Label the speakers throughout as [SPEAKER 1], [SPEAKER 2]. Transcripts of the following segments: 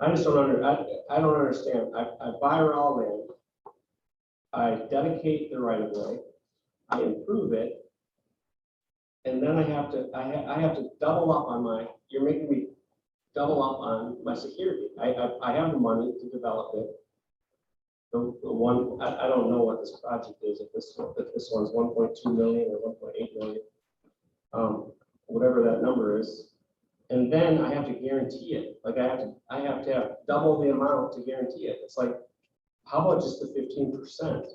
[SPEAKER 1] I just don't under, I, I don't understand. I, I buy raw land. I dedicate the right of way, I improve it. And then I have to, I, ha- I have to double up on my, you're making me double up on my security. I, I, I have the money to develop it. The, the one, I, I don't know what this project is, if this, if this one's one point two million or one point eight million. Um, whatever that number is. And then I have to guarantee it, like I have to, I have to have double the amount to guarantee it, it's like, how about just the fifteen percent?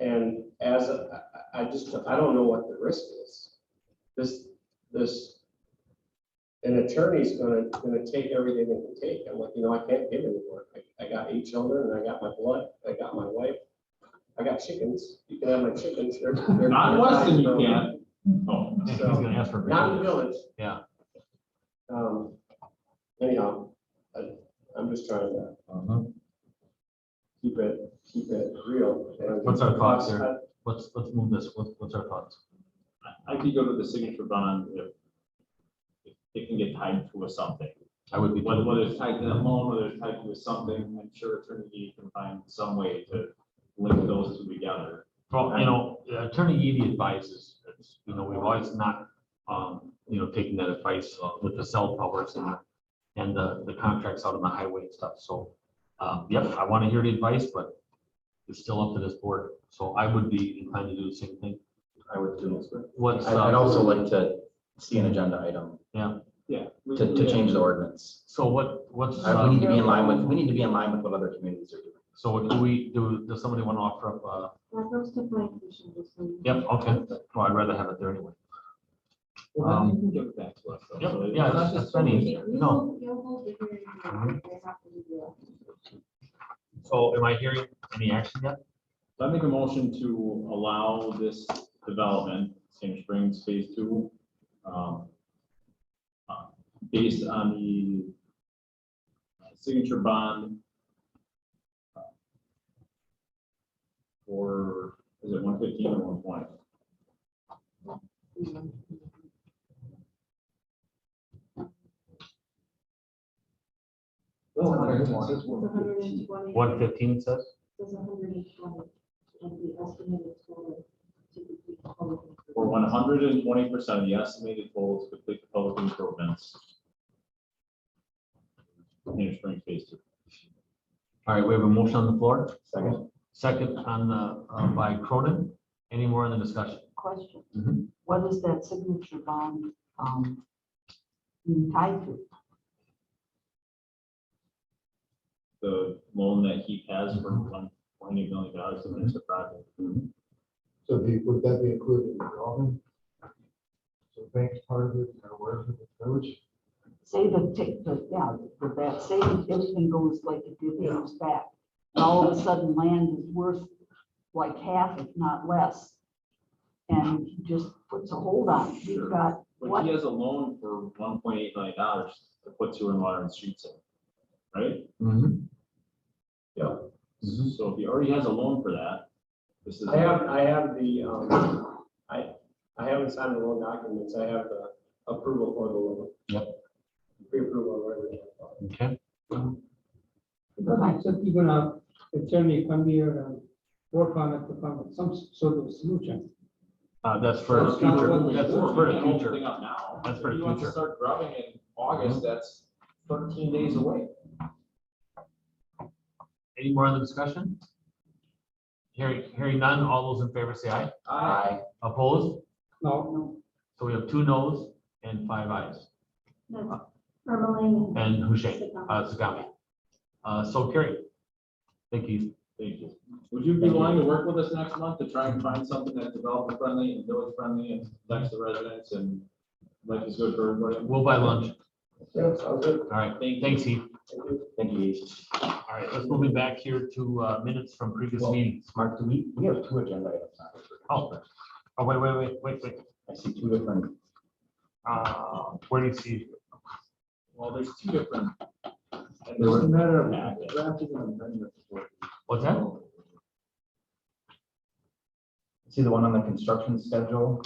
[SPEAKER 1] And as, a- I, I I just, I don't know what the risk is. This, this, an attorney's gonna, gonna take everything they can take, I'm like, you know, I can't give anymore, I, I got eight children, and I got my blood, I got my wife, I got chickens, you can have my chickens. they're- they're-
[SPEAKER 2] Not in Weston, you
[SPEAKER 1] they're-
[SPEAKER 2] can't. Oh,
[SPEAKER 3] I think He's gonna ask for.
[SPEAKER 1] Not in the
[SPEAKER 3] variance.
[SPEAKER 1] village.
[SPEAKER 3] Yeah.
[SPEAKER 1] Um, anyhow, I, I'm just trying to
[SPEAKER 3] Mhm.
[SPEAKER 1] keep it, keep it real. and-
[SPEAKER 3] What's our thoughts here? Let's, let's move this. What, what's our thoughts?
[SPEAKER 2] I could go to the signature bond if if it can get tied to a something.
[SPEAKER 3] I would be.
[SPEAKER 2] Whether, whether it's tied to that loan, whether it's tied to something, I'm sure Attorney Gee can find some way to link those two together.
[SPEAKER 3] Well, you know, Attorney Eady advises, it's, you know, we've always not, um, you know, taking that advice uh, with the cell towers and, and the, the contracts out on the highway and stuff, so, um, yep, I want to hear the advice, but it's still up to this board, so I would be inclined to do the same thing.
[SPEAKER 4] I would do.
[SPEAKER 3] What's,
[SPEAKER 4] I- I'd
[SPEAKER 3] uh,
[SPEAKER 4] also like to see an agenda item
[SPEAKER 2] Yeah. we-
[SPEAKER 4] to, to
[SPEAKER 2] we-
[SPEAKER 4] change the ordinance.
[SPEAKER 3] so what, what's,
[SPEAKER 4] Uh, We
[SPEAKER 3] uh,
[SPEAKER 4] need to be in line with, we need to be in line with what other communities are doing.
[SPEAKER 3] so do we, do, does somebody want to offer up, uh,
[SPEAKER 5] That goes to plan commission, just so you know.
[SPEAKER 3] yep, okay, well, I'd rather have it there anyway.
[SPEAKER 2] Well, then you can give it back to us. though,
[SPEAKER 3] Yep,
[SPEAKER 2] so it-
[SPEAKER 3] yeah,
[SPEAKER 2] it's
[SPEAKER 3] that's-
[SPEAKER 2] just
[SPEAKER 3] that's plenty.
[SPEAKER 2] easier.
[SPEAKER 5] You
[SPEAKER 3] No.
[SPEAKER 5] will- You'll hold the hearing,
[SPEAKER 3] Mhm.
[SPEAKER 5] they have to do that.
[SPEAKER 3] So am I hearing any action yet?
[SPEAKER 2] So I make a motion to allow this development, Sand Springs Phase Two. um, uh, Based on the uh, signature bond. uh, For, is it one fifteen or one twenty?
[SPEAKER 5] It's hundred and twenty.
[SPEAKER 3] One fifteen says?
[SPEAKER 5] It's hundred and twenty, and the estimated total to complete the public improvement.
[SPEAKER 2] For one hundred and twenty percent of the estimated total to complete the public improvements. Sand Springs Phase Two.
[SPEAKER 3] All right, we have a motion on the floor,
[SPEAKER 4] Second,
[SPEAKER 3] second on the, uh, by Cronin. Any more in the discussion?
[SPEAKER 6] question.
[SPEAKER 2] Mm-hmm.
[SPEAKER 3] Mhm.
[SPEAKER 6] What is that signature bond, um, being tied to?
[SPEAKER 2] the loan that he has for one twenty million dollars to finish the project.
[SPEAKER 7] So the, would that be included in the drawing? So banks part of it, or wherever the village?
[SPEAKER 6] Say the, tick- the, yeah, the back, say that everything goes like it did, it goes back. And all of a sudden, land is worth like half, if not less. And he just puts a hold on it. You've got,
[SPEAKER 2] But he has a loan for one point eight million dollars to put sewer and water and streets in, right?
[SPEAKER 3] Mhm. Mhm.
[SPEAKER 2] So if he already has a loan for that, this is.
[SPEAKER 1] I have, I have the, um, I, I haven't signed the loan documents, I have the approval for the loan. Yep. Pre-approval, or whatever. you wanna call it.
[SPEAKER 3] Okay,
[SPEAKER 8] So you're gonna, attorney come here and work on it, to come with some sort of solution.
[SPEAKER 3] uh, that's for the
[SPEAKER 8] That's not what
[SPEAKER 3] future,
[SPEAKER 8] we-
[SPEAKER 3] that's
[SPEAKER 2] We're
[SPEAKER 3] for the
[SPEAKER 2] gonna open
[SPEAKER 3] future.
[SPEAKER 2] thing up now.
[SPEAKER 3] That's for the
[SPEAKER 2] If he wants to
[SPEAKER 3] future. Mm-hmm.
[SPEAKER 2] Start grubbing in August, that's thirteen days away.
[SPEAKER 3] Any more in the discussion? Hearing, hearing none, all those in favor say aye.
[SPEAKER 4] I,
[SPEAKER 3] Opposed?
[SPEAKER 8] No,
[SPEAKER 3] So we have two noes and five ayes,
[SPEAKER 5] That's For Malay.
[SPEAKER 3] and Hushain, uh, Sagami. Uh, so carry. Thank you.
[SPEAKER 2] Thank you. Would you be willing to work with us next month to try and find something that's developer friendly and village friendly and likes the residents and life is good for everybody?
[SPEAKER 3] We'll buy lunch.
[SPEAKER 1] Yeah, sounds good.
[SPEAKER 3] All right,
[SPEAKER 2] Thank you.
[SPEAKER 3] thanks, Heath.
[SPEAKER 1] Thank you.
[SPEAKER 4] thank you.
[SPEAKER 3] All right, let's move it back here to, uh, minutes from previous
[SPEAKER 4] Well-
[SPEAKER 3] meetings.
[SPEAKER 4] Mark, do we, we have two agenda items. on this.
[SPEAKER 3] Oh, oh, wait, wait, wait, wait, wait.
[SPEAKER 4] I see two different,
[SPEAKER 3] Uh, where do you see?
[SPEAKER 2] Well, there's two different.
[SPEAKER 7] It's a matter of
[SPEAKER 2] Yeah.
[SPEAKER 7] drafting and amendment.
[SPEAKER 3] What's that?
[SPEAKER 4] see the one on the construction schedule?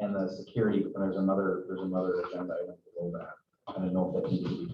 [SPEAKER 4] And the security, but there's another, there's another agenda item below that. I don't know if that needs to be